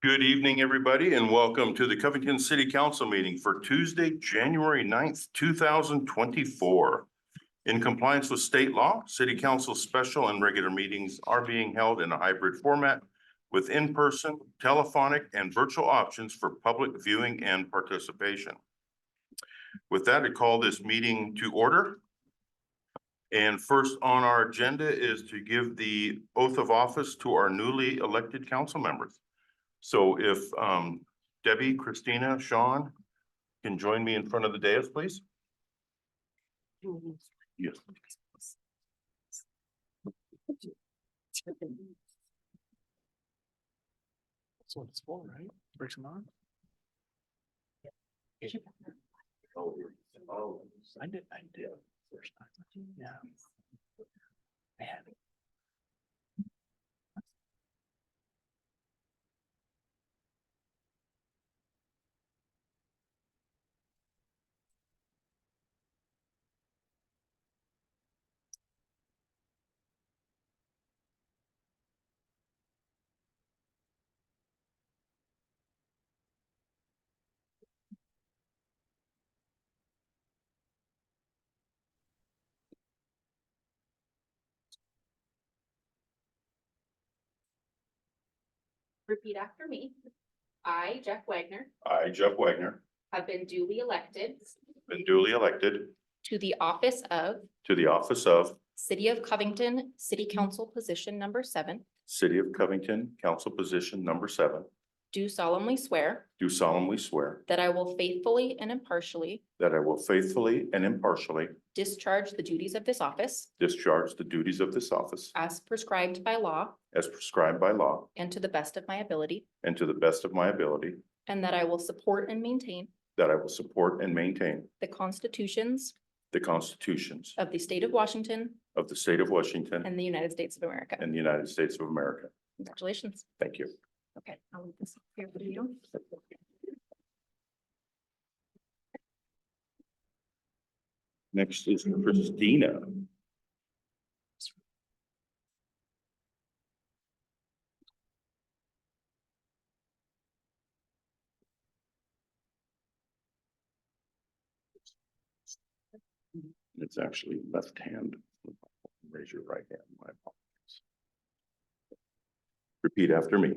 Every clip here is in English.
Good evening, everybody, and welcome to the Covington City Council meeting for Tuesday, January 9th, two thousand twenty-four. In compliance with state law, city council special and regular meetings are being held in a hybrid format with in-person, telephonic, and virtual options for public viewing and participation. With that, I call this meeting to order. And first on our agenda is to give the oath of office to our newly elected council members. So if um Debbie, Christina, Sean can join me in front of the dais, please. Yes. That's what it's for, right? Bricks and on? Oh, I did, I did. first time. Yeah. Man. Repeat after me. I, Jeff Wagner, I, Jeff Wagner, have been duly elected been duly elected to the office of to the office of City of Covington City Council Position Number Seven, City of Covington, Council Position Number Seven, do solemnly swear do solemnly swear that I will faithfully and impartially that I will faithfully and impartially discharge the duties of this office discharge the duties of this office as prescribed by law as prescribed by law and to the best of my ability, and to the best of my ability, and that I will support and maintain that I will support and maintain the constitutions the constitutions of the state of Washington of the state of Washington and the United States of America. and the United States of America. Congratulations. Thank you. Okay, I'll leave this here for you. Next is Christina. It's actually left hand. Raise your right hand. My apologies. Repeat after me.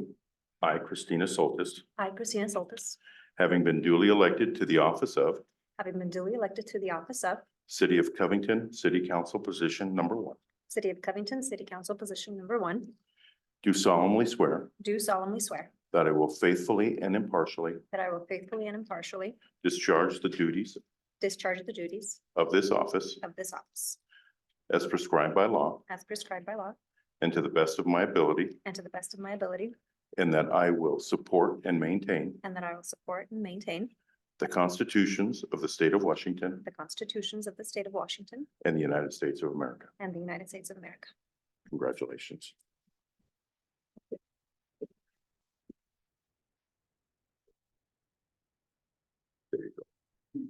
I, Christina Soltis, I, Christina Soltis, having been duly elected to the office of having been duly elected to the office of City of Covington City Council Position Number One, City of Covington City Council Position Number One, do solemnly swear do solemnly swear That I will faithfully and impartially that I will faithfully and impartially discharge the duties discharge the duties of this office of this office as prescribed by law as prescribed by law and to the best of my ability, and to the best of my ability, and that I will support and maintain and that I will support and maintain the constitutions of the state of Washington the constitutions of the state of Washington and the United States of America. and the United States of America. Congratulations. There you go.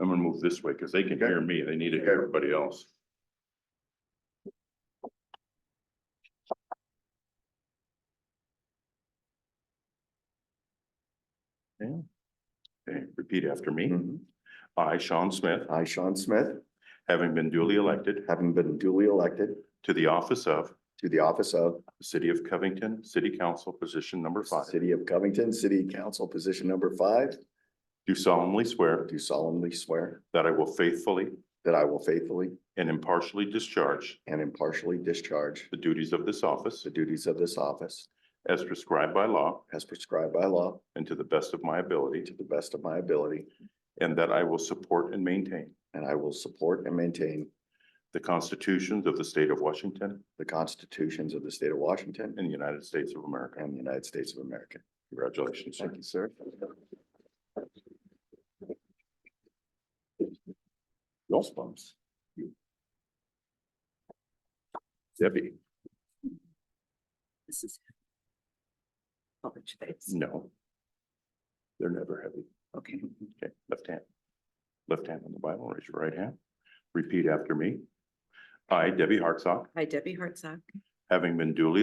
I'm gonna move this way because they can hear me. They need to hear everybody else. Yeah. Okay, repeat after me. I, Sean Smith, I, Sean Smith, having been duly elected having been duly elected to the office of to the office of the City of Covington, City Council, position number five, City of Covington, City Council, position number five, do solemnly swear do solemnly swear that I will faithfully that I will faithfully and impartially discharge and impartially discharge the duties of this office the duties of this office as prescribed by law as prescribed by law and to the best of my ability, to the best of my ability, and that I will support and maintain and I will support and maintain the constitutions of the state of Washington the constitutions of the state of Washington and the United States of America. and the United States of America. Congratulations, sir. Thank you, sir. Those bumps. Debbie, This is. Orange face, no. They're never heavy. okay. Okay, left hand. Left hand on the Bible, raise your right hand. Repeat after me. I, Debbie Hartsock, Hi, Debbie Hartsock. having been duly